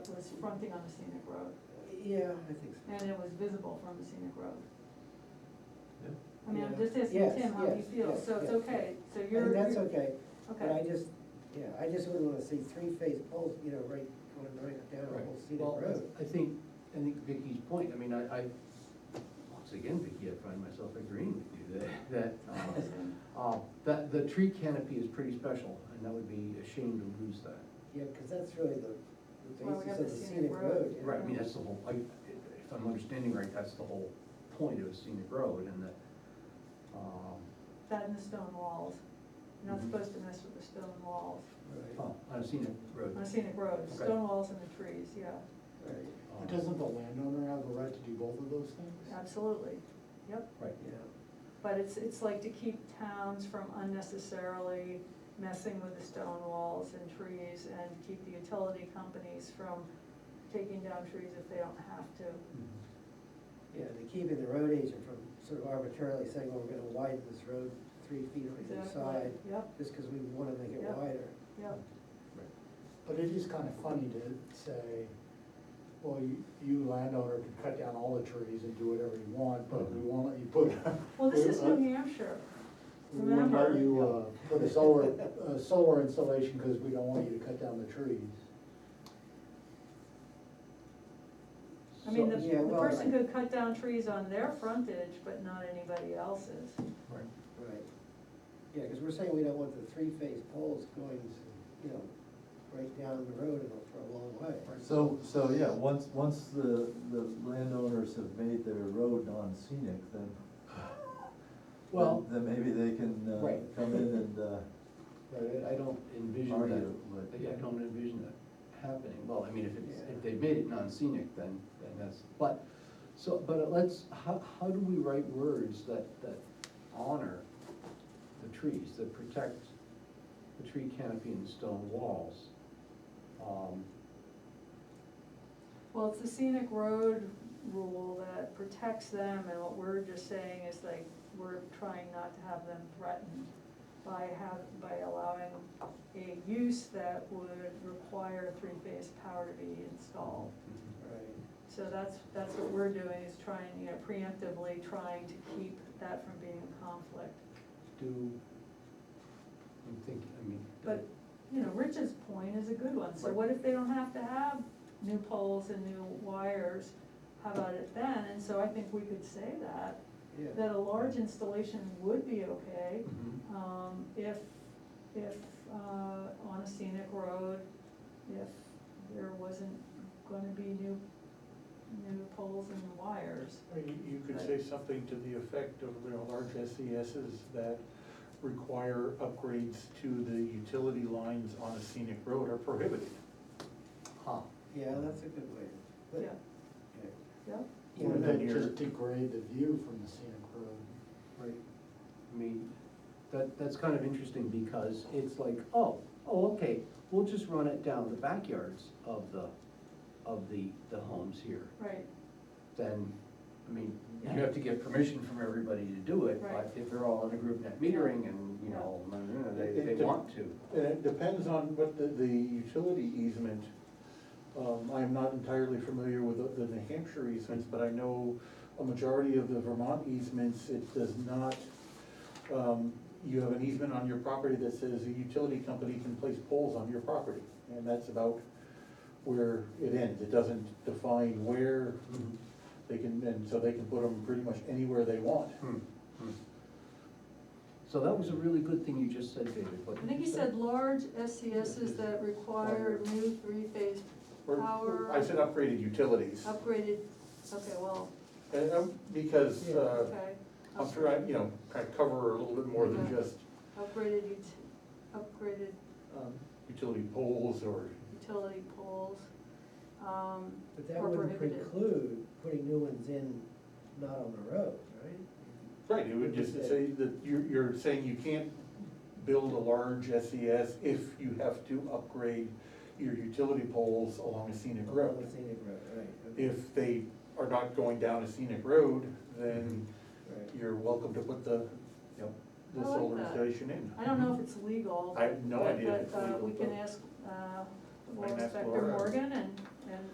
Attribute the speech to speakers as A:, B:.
A: fronting on the scenic road,
B: Yeah, I think so.
A: and it was visible from the scenic road.
C: Yeah.
A: I mean, I'm
B: Yeah.
A: just asking
B: Yes,
A: Tim how he
B: yes,
A: feels,
B: yes,
A: so it's
B: yes.
A: okay, so
B: I
A: you're.
B: mean, that's
A: you're-
B: okay, but I
A: Okay,
B: just, yeah, I just wouldn't wanna see three-phase poles, you know, right, going right down a
C: Right.
B: whole scenic
C: Well,
B: road.
C: I think, I think Vicky's point, I mean, I, I, once again, Vicky, I find myself agreeing with you that, that, uh, uh, that the tree canopy is pretty special, and that would be a shame to lose that.
B: Yeah, cause that's really the, the
A: Well, we
B: basis
A: got
B: of the scenic road.
A: yeah.
C: Right, I mean, that's the whole, I, if I'm understanding right, that's the whole point of a scenic road, and that, um,
A: that and the stone walls, you're not
C: Mhm.
A: supposed to mess with the stone walls,
B: Right,
C: oh, on a scenic road.
A: on a scenic road,
C: Okay.
A: stone walls and the trees, yeah,
B: right,
C: um,
D: Doesn't the landowner have the right to do both of those things?
A: absolutely, yep.
C: Right,
B: yeah,
A: But it's, it's like to keep towns from unnecessarily messing with the stone walls and trees and keep the utility companies from taking down trees if they don't have to.
C: Mhm.
B: yeah, they're keeping the road agent from sort of arbitrarily saying, well, we're gonna widen this road three feet on either
A: Exactly.
B: side,
A: Yep,
B: just cause we wanna make it
A: Yep.
B: wider.
A: yep,
C: Mm-hmm. Right.
D: But it is kind of funny to say, well, you, you landowner can cut down all the trees and do whatever you want, but we won't let you put.
A: well, this is
D: we
A: New
D: won't-
A: Hampshire,
D: We won't let
A: remember.
D: you, uh, put a solar, uh, solar installation because we don't want you to cut down the trees.
A: I mean, the,
B: So- yeah,
A: the
B: well,
A: person
B: right.
A: could cut down trees on their frontage, but not anybody else's.
C: Right.
B: Right. Yeah, because we're saying we don't want the three-phase poles going, you know, right down the road and for a long way.
E: So, so, yeah, once, once the, the landowners have made their road non-scenic, then,
D: Well,
E: then maybe they can, uh,
D: Right.
E: come in and, uh,
C: Right, I I don't envision
E: Are
C: that,
E: you, but-
C: yeah, I don't envision that happening, well, I mean, if it's,
B: Yeah.
C: if they made it non-scenic, then, then that's, but, so, but let's, how, how do we write words that, that honor the trees, that protect the tree canopy and stone walls? Um,
A: Well, it's the scenic road rule that protects them, and what we're just saying is like, we're trying not to have them threatened by have, by allowing a use that would require three-phase power to be installed.
E: Oh.
B: Right,
A: So that's, that's what we're doing, is trying, you know, preemptively trying to keep that from being a conflict.
C: Do, I'm thinking, I mean.
A: But, you know, Rich's point is a good one, so
C: Right.
A: what if they don't have to have new poles and new wires? How about it then? And so I think we could say that,
B: yeah.
A: that a large installation would be okay,
C: Mhm.
A: um, if, if, uh, on a scenic road, if there wasn't gonna be new, new poles and wires.
F: Or You you could say something to the effect of, you know, large SESs that require upgrades to the utility lines on a scenic road are prohibited.
C: Huh.
B: Yeah, that's a good way.
A: Yeah,
B: But- okay.
A: yeah,
B: You know,
D: or
B: that-
D: that
F: you're-
D: just degrade the view from the scenic road.
C: Right, I mean, that, that's kind of interesting because it's like, oh, oh, okay, we'll just run it down the backyards of the, of the, the homes here.
A: right,
C: Then, I mean, you have to get permission from everybody to do it,
A: Right.
C: but if they're all in a group net metering and, you know, they, they want to.
F: And it depends on what the, the utility easement, um, I am not entirely familiar with the- the New Hampshire easements, but I know a majority of the Vermont easements, it does not, um, you have an easement on your property that says a utility company can place poles on your property, and that's about where it ends, it doesn't define where they can, and so they can put them pretty much anywhere they want.
C: Hmm, hmm. So that was a really good thing you just said, David, what
A: I think he said large SCSs that require new three-phase
F: Or-
A: power.
F: I said upgraded utilities,
A: Upgraded, okay, well,
F: and, um, because, uh,
A: okay.
F: I'm sure I, you know, kind of cover a little bit more than
A: Mm-hmm.
F: just
A: Upgraded, ut- upgraded
F: um, utility poles or,
A: utility poles, um,
B: But that
A: or
B: wouldn't
A: prohibited.
B: preclude putting new ones in, not on the road, right?
F: right, it would just say that you're, you're saying you can't build a large SES if you have to upgrade your utility poles along a scenic
B: On
F: road.
B: the scenic road, right. okay,
F: If they are not going down a scenic road, then
B: right.
F: you're welcome to put the, you know, the
A: I like
F: solar
A: that.
F: station in.
A: I don't know if it's legal.
F: I have no
A: but-
F: idea if it's
A: But, uh,
F: legal,
A: we can
F: but-
A: ask, uh,
F: I
A: Law
F: can ask
A: Inspector
F: Laura.
A: Morgan and, and